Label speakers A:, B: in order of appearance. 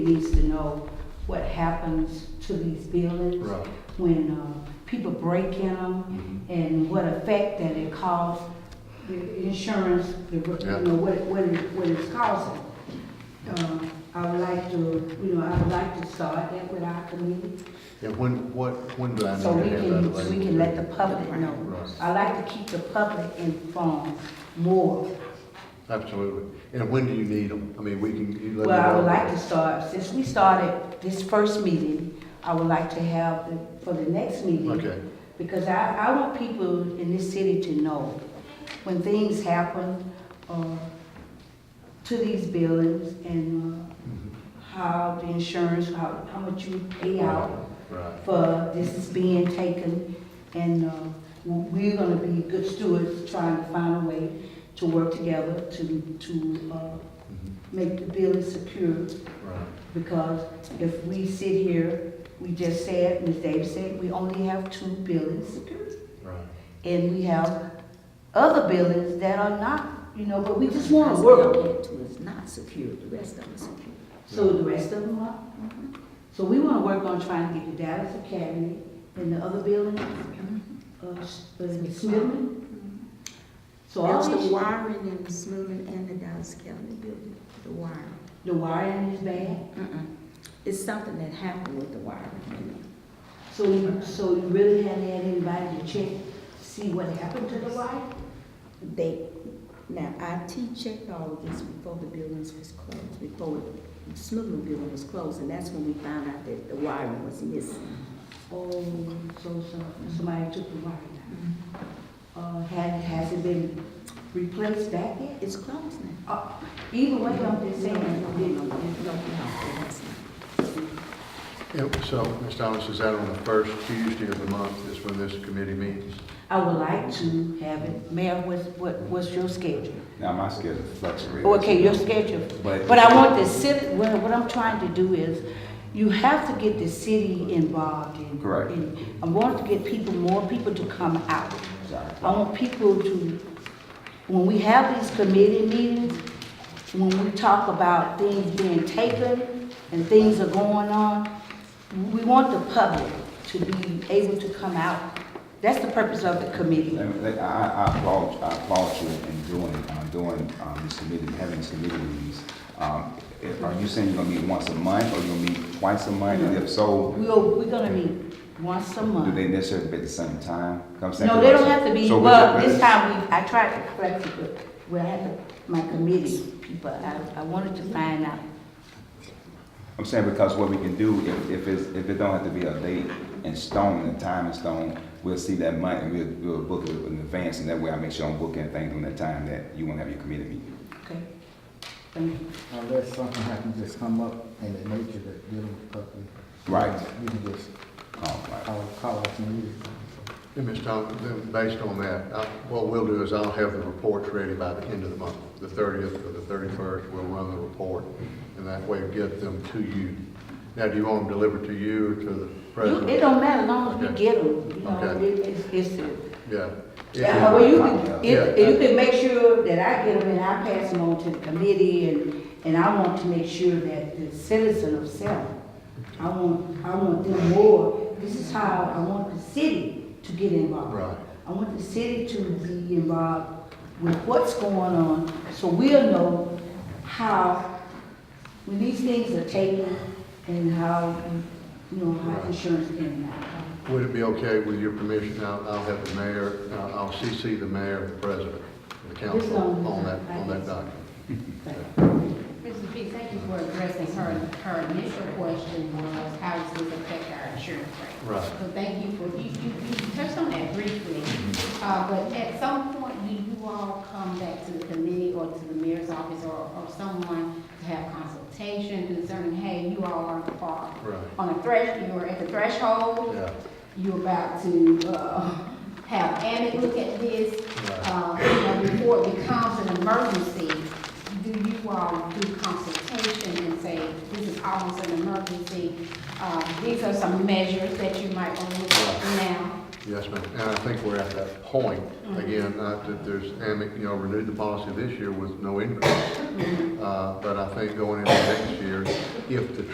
A: needs to know what happens to these buildings
B: Right.
A: when uh, people break in them
B: Mhm.
A: and what effect that it causes, the insurance, the,
B: Yeah.
A: you know, what, what, it- what it's causing. Uh, I would like to, you know, I would like to start that with our community,
B: And when, what, when do I need
A: so we
B: to have that
A: can,
B: available?
A: we can let the public know.
B: Right.
A: I like to keep the public informed more.
B: Absolutely. And when do you need them? I mean, we can, you let me know.
A: Well, I would like to start, since we started this first meeting, I would like to have, the- for the next meeting.
B: Okay.
A: Because I, I want people in this city to know when things happen, uh, to these buildings and, uh, how the insurance, how, how much you pay out
B: Mm-hmm. Right,
A: for this is being taken. And, uh, we're gonna be good stewards trying to find a way to work together to, to, uh,
B: Mhm.
A: make the building secure
B: right.
A: because if we sit here, we just said, Ms. Davis said, we only have two buildings secure.
B: Right.
A: And we have other buildings that are not, you know, but we just wanna work,
C: Two is not secure, the rest of them is secure.
A: so the rest of them are. So we wanna work on trying to get the Dallas Academy and the other building, uh, S- uh, Smithman.
C: Mm-hmm.
A: So all
C: That's the
A: these,
C: wiring in Smoonin and the Dallas County building, the wiring.
A: the wiring is bad,
C: Uh-uh. It's something that happened with the wiring.
A: so, you- so you really haven't had anybody to check, see what happened to the wiring?
C: They, now, IT checked all of this before the buildings was closed, before the Smoonin building was closed, and that's when we found out that the wiring was missing.
A: Oh, so, so, somebody took the wire out.
C: Mm-hmm.
A: Uh, had, has it been replaced back yet?
C: It's closed now.
A: Uh, either way, I'm just saying, it
C: No, no,
A: didn't.
C: no, no, it's not.
B: And so, Ms. Thomas, is that on the first Tuesday of the month is when this committee meets?
A: I would like to have it, Mayor, what's, what, what's your schedule? Oh,
D: Now, my schedule fluctuates.
A: Okay, your schedule,
D: But-
A: but I want the city, well, what I'm trying to do is, you have to get the city involved in.
D: Correct.
A: in- I want to get people, more people to come out.
D: Sorry.
A: I want people to, when we have these committee meetings, when we talk about things being taken and things are going on, we want the public to be able to come out. That's the purpose of the committee.
D: Let me- let- I I applaud, I applaud you in doing, uh, doing um, this committee, having this committee meetings. Um, i- Are you saying you're gonna meet once a month, or you're gonna meet twice a month? And if so,
A: We're, we're gonna meet once a month.
D: do they necessarily be at the same time? Come
A: No,
D: Saturday?
A: they don't have to be,
D: So we-
A: well, this time we, I tried to correct it, but, well, I had to- my committee people, I, I wanted to find out.
D: I'm saying because what we can do, if, if it's, if it don't have to be a date in stone, and time in stone, we'll see that month, and we'll, we'll book it in advance, and that way I make sure I'm booking things on that time that you wanna have your committee meeting.
A: Okay. Thank you.
E: Unless something happens, just come up and the nature that dealing with public.
D: Right.
E: You can just
D: Oh, right.
E: call, call us immediately.
B: And Ms. Thomas, then based on that, I- what we'll do is I'll have the reports ready by the end of the month, the 30th or the 31st, we'll run the report, and that way get them to you. Now, do you want them delivered to you or to the
A: You-
B: president?
A: It don't matter, as long as we
B: Okay.
A: get them, you know,
B: Okay.
A: it- it's, it's,
B: Yeah.
A: yeah, well, you can,
B: Yeah.
A: if, you can make sure that I get them and I pass them on to the committee and, and I want to make sure that the citizen of Selma, I want, I want them more, this is how I want the city to get involved.
B: Right.
A: I want the city to be involved with what's going on, so we'll know how, when these things are taken, and how, you know, how insurance can out.
B: Would it be okay with your permission, I'll, I'll have the mayor, I'll I'll CC the mayor and the president, and the council
A: Yes,
B: on that,
A: I
B: on that
A: guess.
B: document.
F: Mrs. B, thank you for addressing her, her initial question was, how does this affect our insurance rate?
B: Right.
F: So thank you for, you, you, you touched on that briefly, uh, but at some point, do you all come back to the committee or to the mayor's office or, or someone to have consultation concerning, hey, you all are, are
B: Right.
F: on the thresh, you are at the
A: Oh.
F: threshold,
B: Yeah,
F: you're about to, uh, have Annie look at this,
B: right.
F: uh, and before it becomes an emergency, do you all do consultation and say, this is almost an emergency? Uh, These are some measures that you might want to look at now.
B: Yes, ma'am, and I think we're at that point, again, not that there's, and, you know, renewed the policy this year with no increase. Uh, but I think going into next year, if the